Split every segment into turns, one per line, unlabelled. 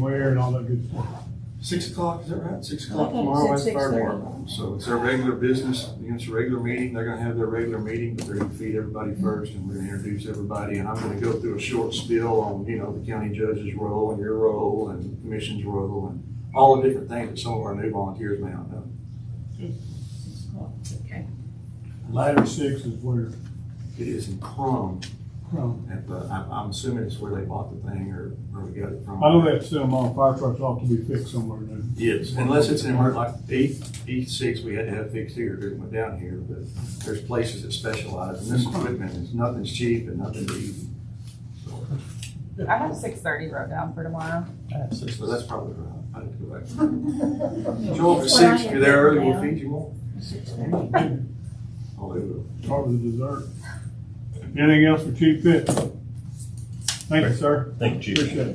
where and all that good stuff.
Six o'clock, is that right? Six o'clock
Okay, you
tomorrow at
said
the fire
6:30.
department. So it's their regular business, you know, it's a regular meeting, they're gonna have their regular meeting, but they're gonna feed everybody first, and we're gonna introduce everybody, and I'm gonna go through a short spiel on, you know, the county judge's role, and your role, and the commission's role, and all the different things that some of our new volunteers may not know.
Okay.
Ladder six is where,
It is in Crum,
um,
at the, I'm, I'm assuming it's where they bought the thing, or where we got it from.
I know that some uh, fire trucks ought to be fixed somewhere new.
Yes, unless it's in, emer- like, E, E six, we had to have fixed here, it went down here, but there's places that specialize in this equipment, it's nothing's cheap and nothing's easy. So,
I have six thirty wrote down for tomorrow.
So that's probably right, I need to go back. Joel, if six, if you're there early, we'll feed you more. Oh, they will.
Start with the dessert. Anything else for Chief Pitt? Thank you, sir.
Thank you, Chief.
Appreciate it.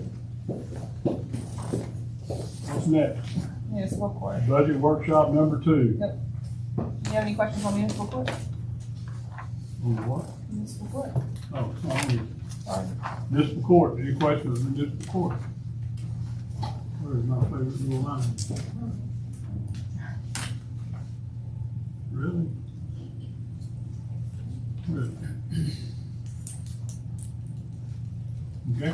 What's next?
Municipal court.
Budget workshop number two.
You have any questions on municipal court?
On what?
Municipal court.
Oh, on municipal court. Any questions on municipal court? Where's my favorite little line? Really? Really? Okay.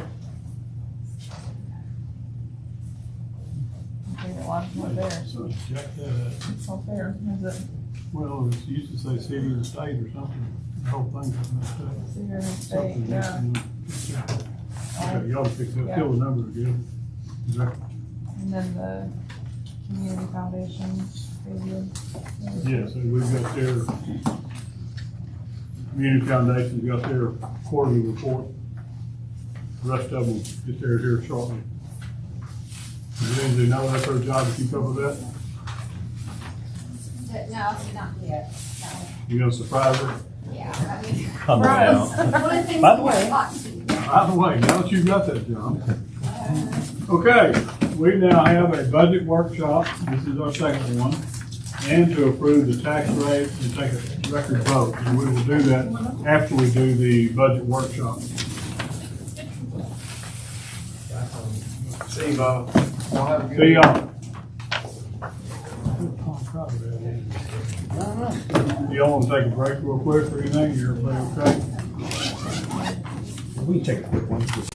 Favorite one, not there.
So check that out.
It's not there, is it?
Well, it used to say city and state or something, the whole thing got messed up.
It's here in the state,
Something
yeah.
missing.
Um,
Okay, Y'all fix that, fill the number again. Is that-
And then the community foundation. maybe.
Yeah, so we've got their, Community Foundation's got their quarterly report. The Rest of them get theirs here shortly. Lindsay, now that's her job to keep up with that.
But No, not yet, no,
You gonna surprise her?
yeah, I mean,
Come on now.
one of the things.
By the
we
way-
got to-
By the way, now that you've got that, John. Okay, we now have a budget workshop, this is our second one, and to approve the tax rate and take a record vote, and we will do that after we do the budget workshop.
See you, Bob. Y'all have a good-
See y'all. Y'all wanna take a break real quick or anything, everybody okay?
We can take a quick one.